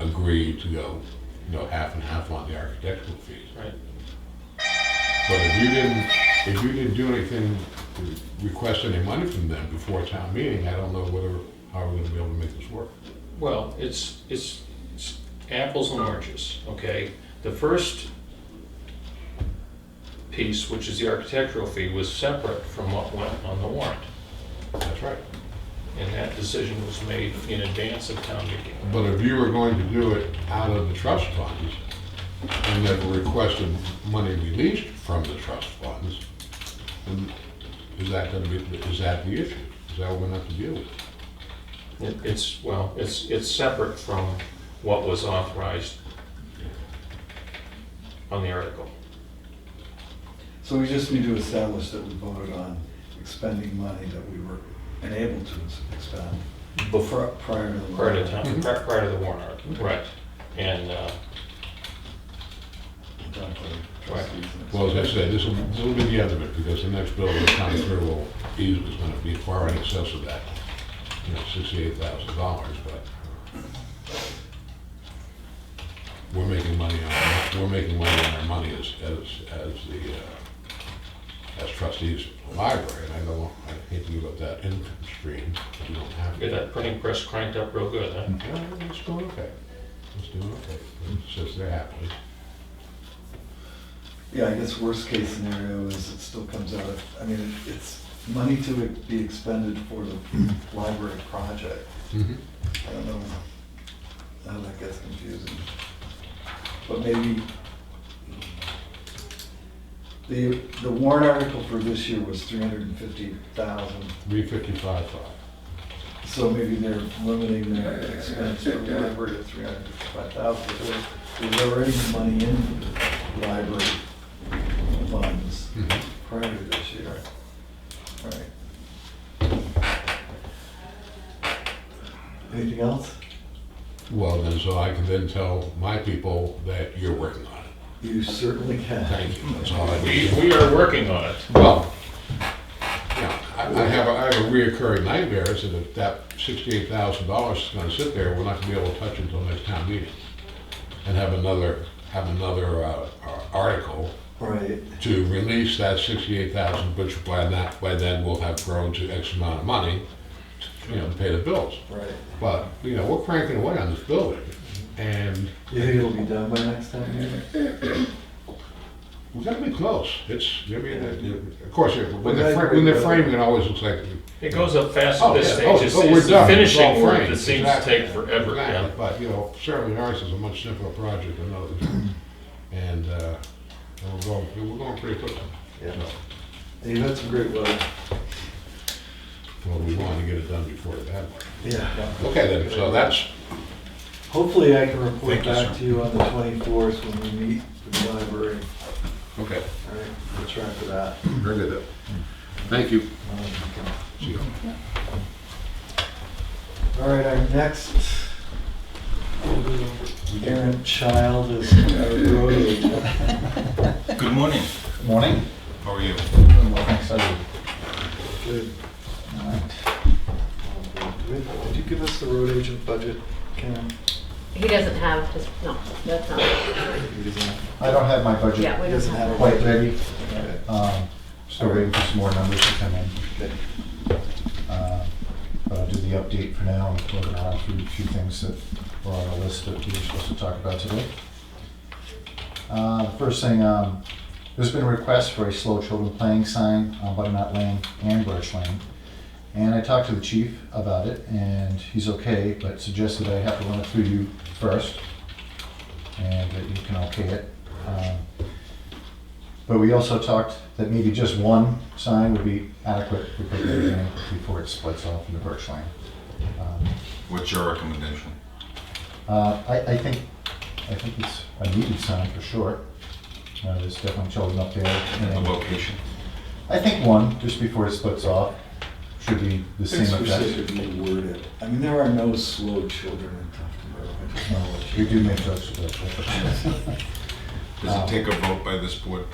agreed to go, you know, half and half on the architectural fees. Right. But if you didn't, if you didn't do anything, to request any money from them before town meeting, I don't know whether, how we're gonna be able to make this work. Well, it's, it's it's apples and oranges, okay? The first piece, which is the architectural fee, was separate from what went on the warrant. That's right. And that decision was made in advance of town meeting. But if you were going to do it out of the trust funds, and never requested money released from the trust funds, then is that gonna be, is that the issue? Is that what we're gonna have to deal with? It- It's, well, it's, it's separate from what was authorized on the article. So we just need to establish that we voted on expending money that we were unable to ex- expend before, prior to the. Prior to town, pri- prior to the warrant article, right. And, uh, Exactly. Trustees and- Well, as I said, this will, this will be the end of it, because the next bill that comes through will, is gonna be far in excess of that, you know, sixty-eight thousand dollars, but we're making money on, we're making money on our money as, as, as the, uh, as trustees of the library, and I don't, I hate to give up that income stream, but we don't have get to. that printing press cranked up real good, huh? Yeah, it's doing okay, it's doing okay, it's just they're happy. Yeah, I guess worst case scenario is it still comes out of, I mean, it- it's money to be expended for the library project. Mhm. I don't know, how that gets confusing. But maybe, the, the warrant article for this year was three hundred and fifty thousand, Three fifty-five five. so maybe they're limiting their expense for the library to three hundred and fifty-five thousand. There's already money in the library funds Mhm. prior to this year. Right. Anything else? Well, then, so I can then tell my people that you're working on it. You certainly can. Thank you, that's all I We, need. we are working on it. Well, yeah, I I have, a- I have a reoccurring nightmare is that if that sixty-eight thousand dollars is gonna sit there, we're not gonna be able to touch it until next town meeting. And have another, have another uh, uh, article Right, to release that sixty-eight thousand, which by that, by then will have grown to X amount of money, you know, to pay the bills. right. But, you know, we're cranking away on this building, and You think it'll be done by next time? yeah? We've got to be close. It's, I mean, uh, of course, when Well, they're, fra- that- when they're framing, it always looks like. It goes up fast Oh, at yeah. this Oh, stage. It's oh, we're it's the done. It's all finishing work framed. that seems to Exactly. take forever, Exactly. yeah. But, you know, certainly ours is a much simpler project than others. And, uh, and we're going, we're going pretty quickly. Yeah. So, Hey, that's some great work. Well, we want to get it done before the bad one. Yeah. Okay, then, so that's, Hopefully I can report Thank you, back sir. to you on the twenty-fourth when we meet in the library. okay, All right, we'll try for that. very good. then. Thank you. Um, See you. All right, our next errant child is our road agent. Good morning. Morning. How are you? Well, thanks, I do. Good. All right. Did did you give us the road agent budget, Karen? He doesn't have his, no, that's not, He doesn't- I don't have my yeah, budget we don't doesn't have. have a quite ready. Okay. Um, Still waiting for some more numbers to come in. Okay. Uh, But I'll do the update for now and look around through a few things that were on the list that we were supposed to talk about today. Uh, the First thing, um, there's been a request for a slow children playing sign on Butternut Lane and Birch Lane. And I talked to the chief about it, and he's okay, but suggested I have to run it through you first, and that you can okay it. Um, But we also talked that maybe just one sign would be adequate for Big Bear Lane before it splits off into Birch Lane. Um, What's your recommendation? uh, I, I think, I think it's a needed sign for sure. Uh, There's definitely children up there. The and- location? I think one, just before it splits off, should be the same Things were effect. specifically worded. I mean, there are no slow children in Tufton Borough. I just know what We you- do make jokes about that. Um, Does it take a vote by this board?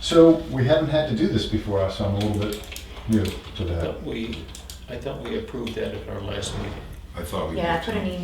So we haven't had to do this before, so I'm a little bit new to I that. thought we, I thought we approved that at our last meeting. I thought we. Yeah, I did put an too. email